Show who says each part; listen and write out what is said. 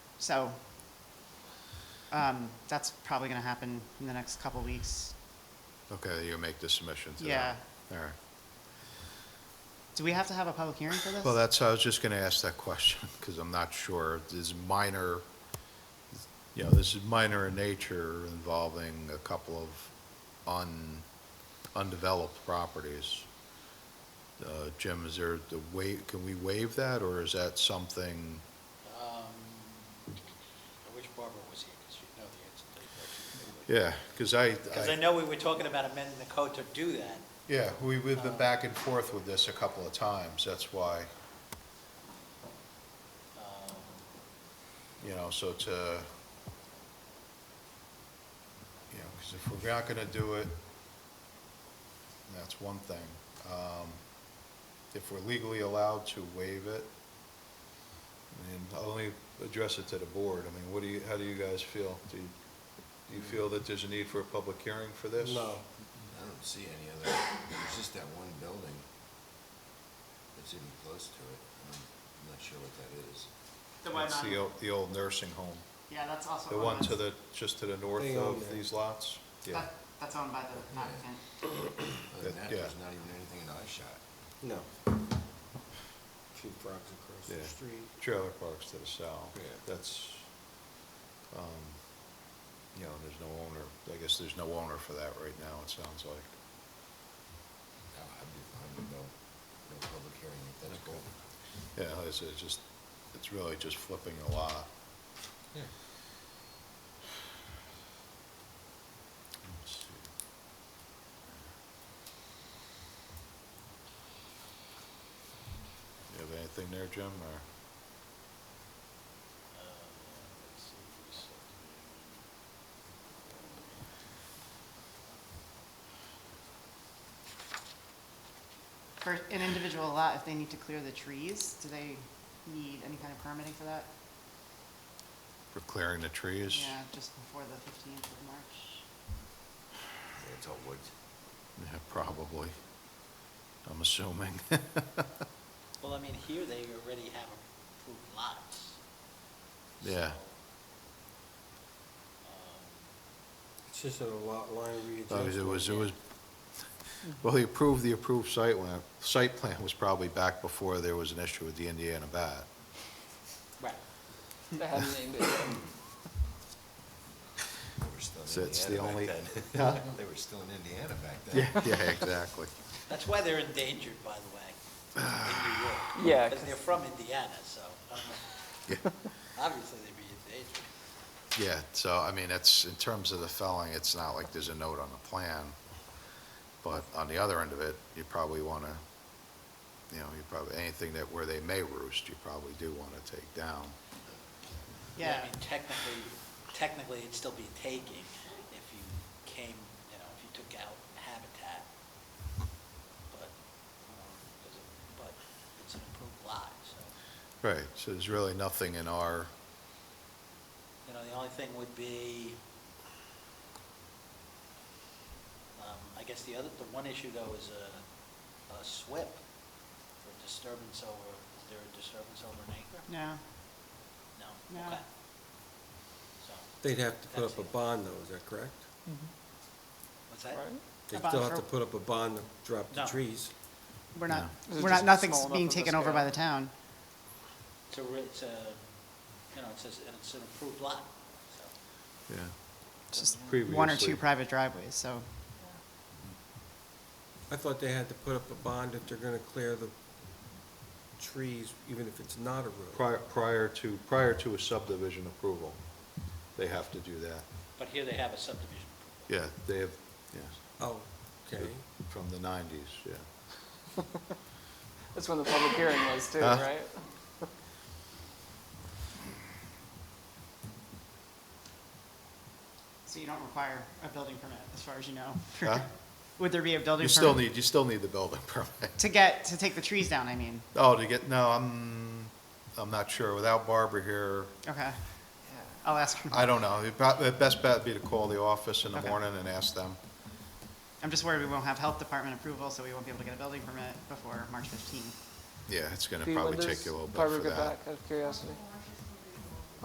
Speaker 1: So um, that's probably going to happen in the next couple weeks.
Speaker 2: Okay, you make the submission to them.
Speaker 1: Yeah.
Speaker 2: All right.
Speaker 1: Do we have to have a public hearing for this?
Speaker 2: Well, that's, I was just going to ask that question, because I'm not sure. This minor, you know, this is minor in nature involving a couple of un, undeveloped properties. Uh, Jim, is there the wa, can we waive that, or is that something,
Speaker 3: Um, I wish Barbara was here, because she'd know the answer to
Speaker 2: yeah,
Speaker 3: that question.
Speaker 2: because I.
Speaker 3: Because I know we were talking about amending the code to do that.
Speaker 2: Yeah, we, we've been back and forth with this a couple of times, that's why,
Speaker 3: Um,
Speaker 2: you know, so to, you know, because if we're not gonna do it, that's one thing. Um, If we're legally allowed to waive it, I mean, I'll only address it to the board, I mean, what do you, how do you guys feel? Do you, do you feel that there's a need for a public hearing for this?
Speaker 4: No.
Speaker 5: I don't see any other, there's just that one building that's even close to it. I'm I'm not sure what that is.
Speaker 1: The Oh, one
Speaker 2: It's
Speaker 1: on-
Speaker 2: the old, the old nursing home,
Speaker 1: Yeah, that's also.
Speaker 2: the
Speaker 1: owned
Speaker 2: one
Speaker 1: by-
Speaker 2: to the, just to the north
Speaker 4: Thing
Speaker 2: of
Speaker 4: on there.
Speaker 2: these lots? Yeah,
Speaker 1: that- That's owned by the applicant.
Speaker 5: Other than
Speaker 2: That-
Speaker 5: that,
Speaker 2: yeah.
Speaker 5: there's not even anything in eye shot.
Speaker 4: No. Few frogs across
Speaker 2: Yeah.
Speaker 4: the street.
Speaker 2: trailer parks to the south.
Speaker 4: Yeah.
Speaker 2: That's, um, you know, there's no owner, I guess there's no owner for that right now, it sounds like.
Speaker 5: No, I'd be fine with no, no public hearing if that's cool.
Speaker 2: Yeah, it's, it's just, it's really just flipping a lot.
Speaker 5: Yeah.
Speaker 2: Let's see. You have anything there, Jim, or?
Speaker 3: uh, let's see if we said-
Speaker 1: For an individual lot, if they need to clear the trees, do they need any kind of permitting for that?
Speaker 2: For clearing the trees?
Speaker 1: Yeah, just before the 15th of March.
Speaker 5: Yeah, it's all woods.
Speaker 2: Yeah, probably. I'm assuming.
Speaker 3: Well, I mean, here they already have approved lots.
Speaker 2: Yeah.
Speaker 3: So, um,
Speaker 4: It's just a lot line
Speaker 2: Uh,
Speaker 4: readjustment.
Speaker 2: It was, it was, well, he approved the approved site plan. Site plan was probably back before there was an issue with the Indiana bat.
Speaker 3: Right.
Speaker 6: They hadn't named it yet.
Speaker 5: They were still
Speaker 2: So
Speaker 5: in
Speaker 2: it's the
Speaker 5: Indiana
Speaker 2: only-
Speaker 5: back
Speaker 2: Huh?
Speaker 5: then. They were still in Indiana back
Speaker 2: Yeah,
Speaker 5: then.
Speaker 2: yeah, exactly.
Speaker 3: That's why they're endangered, by the way, in New York.
Speaker 6: Yeah,
Speaker 3: Because they're from Indiana, so um, obviously they'd be endangered.
Speaker 2: Yeah, so, I mean, it's, in terms of the felling, it's not like there's a note on the plan. But on the other end of it, you probably want to, you know, you probably, anything that, where they may roost, you probably do want to take down.
Speaker 1: Yeah,
Speaker 3: I mean, technically, technically, it'd still be taking if you came, you know, if you took out habitat. But, um, 'cause it- but it's an approved lot, so,
Speaker 2: Right, so there's really nothing in our,
Speaker 3: you know, the only thing would be, um, I guess the other, the one issue though is a, a SWIP for disturbance over, is there a disturbance over an acre?
Speaker 1: no,
Speaker 3: No?
Speaker 1: No.
Speaker 3: Okay. So,
Speaker 4: They'd have to put
Speaker 3: That's
Speaker 4: up a
Speaker 3: it.
Speaker 4: bond though, is that correct?
Speaker 3: what's that?
Speaker 6: Right.
Speaker 4: They
Speaker 1: bond
Speaker 4: still have to
Speaker 1: for-
Speaker 4: put up a bond to drop the
Speaker 3: No.
Speaker 4: trees.
Speaker 1: we're not,
Speaker 6: Is it
Speaker 1: we're
Speaker 6: just
Speaker 1: not,
Speaker 6: small
Speaker 1: nothing's
Speaker 6: enough
Speaker 1: being
Speaker 6: of a
Speaker 1: taken over by
Speaker 6: scale?
Speaker 1: the town.
Speaker 3: It's a, re- it's a, you know, it's, a- it's an approved lot, so.
Speaker 2: yeah.
Speaker 1: It's just one or two
Speaker 2: Previously.
Speaker 1: private driveways, so.
Speaker 4: I thought they had to put up a bond if they're gonna clear the trees, even if it's not a road.
Speaker 2: Prior, prior to, prior to a subdivision approval, they have to do that.
Speaker 3: But here they have a subdivision.
Speaker 2: Yeah, they have, yes,
Speaker 4: Oh, okay.
Speaker 2: from the nineties, yeah.
Speaker 6: That's when the public hearing was too,
Speaker 2: Huh?
Speaker 6: right?
Speaker 1: So you don't require a building permit, as far as you know?
Speaker 2: Huh?
Speaker 1: Would there be a building
Speaker 2: You
Speaker 1: permit?
Speaker 2: still need, you still need the building permit.
Speaker 1: To get, to take the trees down, I mean.
Speaker 2: Oh, to get, no, I'm, I'm not sure. Without Barbara here,
Speaker 1: Okay. I'll ask her.
Speaker 2: I don't know. It'd prob- The best bet would be to call the office in the
Speaker 1: Okay.
Speaker 2: morning and ask them.
Speaker 1: I'm just worried we won't have health department approval, so we won't be able to get a building permit before March 15th.
Speaker 2: Yeah, it's gonna
Speaker 6: Do you- when
Speaker 2: probably
Speaker 6: does
Speaker 2: take you a little bit
Speaker 6: Barbara
Speaker 2: for
Speaker 6: get
Speaker 2: that.
Speaker 6: back, Out of curiosity.